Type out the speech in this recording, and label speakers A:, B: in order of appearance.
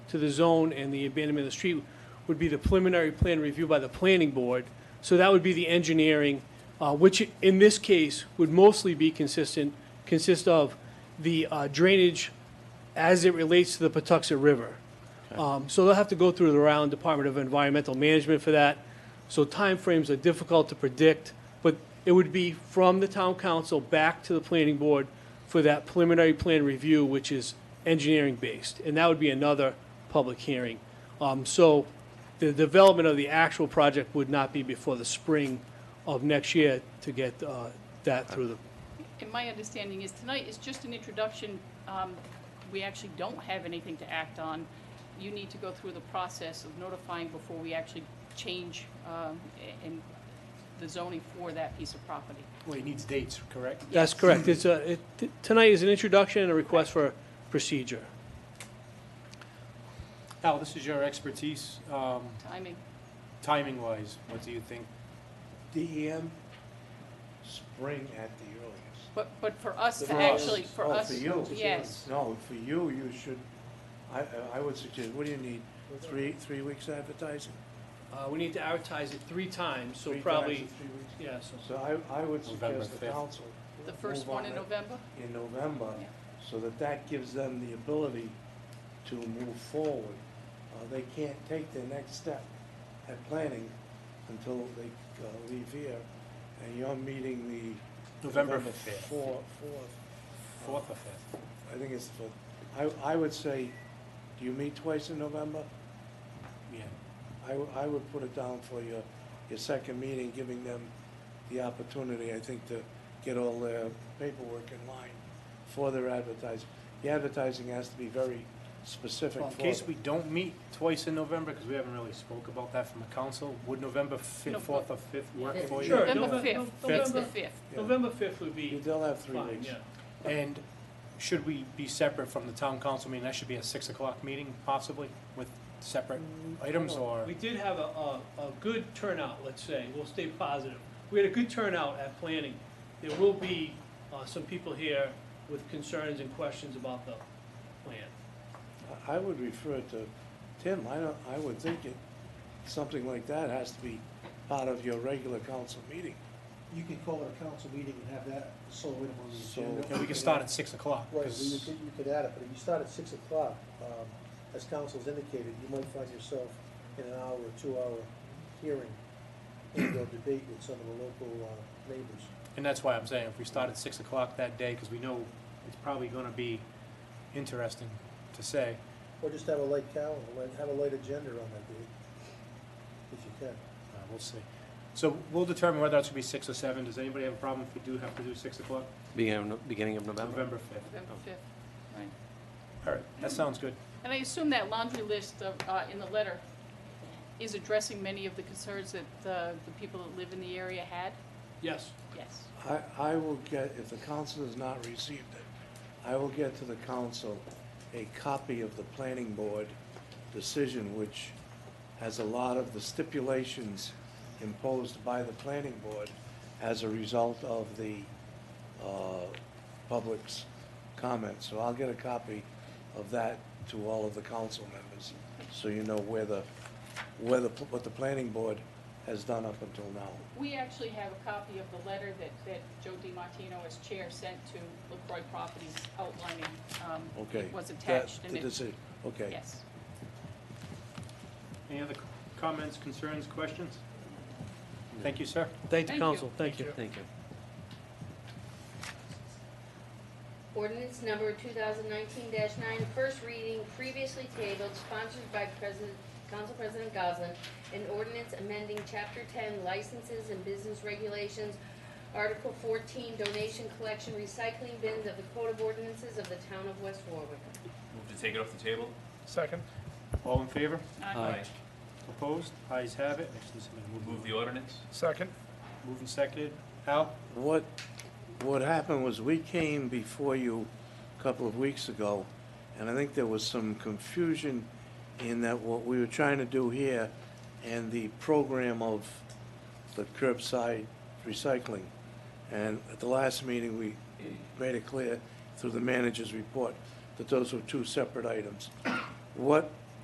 A: to the zone and the abandonment of the street would be the preliminary plan review by the planning board. So that would be the engineering, uh, which in this case would mostly be consistent, consist of the uh, drainage as it relates to the Patuxent River. Um, So they'll have to go through the round Department of Environmental Management for that. So timeframes are difficult to predict, but it would be from the town council back to the planning board for that preliminary plan review, which is engineering-based, and that would be another public hearing. Um, So the development of the actual project would not be before the spring of next year to get uh, that through the
B: And my understanding is tonight is just an introduction. Um, We actually don't have anything to act on. You need to go through the process of notifying before we actually change um, a- and the zoning for that piece of property.
C: Well, it needs dates, correct?
A: That's correct. It's a, it, t- tonight is an introduction and a request for procedure.
C: Al, this is your expertise, um,
B: Timing,
C: timing-wise, what do you think?
D: DEM, spring at the earliest.
B: but, but for us to
D: For us.
B: actually, for us.
D: Oh, for you?
B: Yes.
D: No, for you, you should, I, I would suggest, what do you need, three, three weeks advertising?
A: Uh, we need to advertise it three times, so
D: Three times
A: probably,
D: in three weeks?
A: yeah, so.
D: So I, I would
C: November
D: suggest the
C: fifth.
D: council.
B: The first
D: move
B: one in
D: on it
B: November?
D: In November,
B: Yeah.
D: so that that gives them the ability to move forward. Uh, they can't take their next step at planning until they, uh, leave here, and you're meeting the.
C: November fifth.
D: Four, fourth.
C: Fourth or fifth?
D: I think it's, the- I, I would say, do you meet twice in November?
C: Yeah.
D: I, w- I would put it down for your, your second meeting, giving them the opportunity, I think, to get all their paperwork in line for their advertising. The advertising has to be very specific
C: Well,
D: for
C: In case we
D: them.
C: don't meet twice in November, because we haven't really spoke about that from the council, would November
B: No,
C: fifth,
B: but-
C: fourth or fifth work
A: Yeah,
C: for you?
A: sure.
B: November
A: Nove-
B: 5th,
A: Nov-
B: it's the
A: November-
B: 5th.
D: Yeah.
A: November fifth would be
D: They'll have three
A: fine,
D: weeks.
A: yeah.
C: And should we be separate from the town council meeting? That should be a six o'clock meeting possibly with separate
A: Mm,
C: items or?
A: We did have a, a, a good turnout, let's say, we'll stay positive. We had a good turnout at planning. There will be, uh, some people here with concerns and questions about the plan.
D: I I would refer to Tim, I don't, I would think it, something like that has to be part of your regular council meeting.
E: You can call it a council meeting and have that sole item on
D: So-
E: the agenda.
C: And we can start at six o'clock.
E: Right, well,
C: 'cause-
E: you could, you could add it, but if you start at six o'clock, um, as council's indicated, you might find yourself in an hour or two hour hearing and or debate with some of the local, uh, neighbors.
C: And that's why I'm saying, if we start at six o'clock that day, because we know it's probably gonna be interesting to say.
E: Or just have a light calendar, like, have a light agenda on that day, if you can.
C: Uh, We'll see. So we'll determine whether that's gonna be six or seven. Does anybody have a problem if we do have to do six o'clock?
F: Beginning of, beginning of November?
C: November fifth.
B: November 5th, right.
C: All right, that sounds good.
B: And I assume that laundry list of, uh, in the letter is addressing many of the concerns that uh, the people that live in the area had?
A: Yes,
B: Yes.
D: I, I will get, if the council has not received it, I will get to the council a copy of the planning board decision, which has a lot of the stipulations imposed by the planning board as a result of the, uh, public's comments. So I'll get a copy of that to all of the council members, so you know where the, where the, what the planning board has done up until now.
B: We actually have a copy of the letter that, that Joe DiMartino as chair sent to LaCroix Properties outlining, um,
D: Okay.
B: it was
D: That-
B: attached. and
D: The
B: it-
D: decision, okay.
B: Yes.
C: Any other c- comments, concerns, questions? Thank you, sir.
A: thank
B: Thank
A: the
B: you.
A: council, thank you.
F: Thank you.
G: Ordinance number 2019-9, first reading, previously tabled, sponsored by President, Council President Goslin. An ordinance amending Chapter 10 Licenses and Business Regulations, Article 14 Donation Collection Recycling Bins of the Code of Ordinances of the Town of West Warwick.
H: Move to take it off the table?
C: Second. All in favor?
B: Aye.
C: Opposed? Ayes have it. Actually, somebody
H: Move
C: move
H: the ordinance?
C: Second. Moved and seconded. Al?
D: What, what happened was we came before you a couple of weeks ago, and I think there was some confusion in that what we were trying to do here and the program of the curbside recycling. And at the last meeting, we made it clear through the manager's report that those were two separate items. What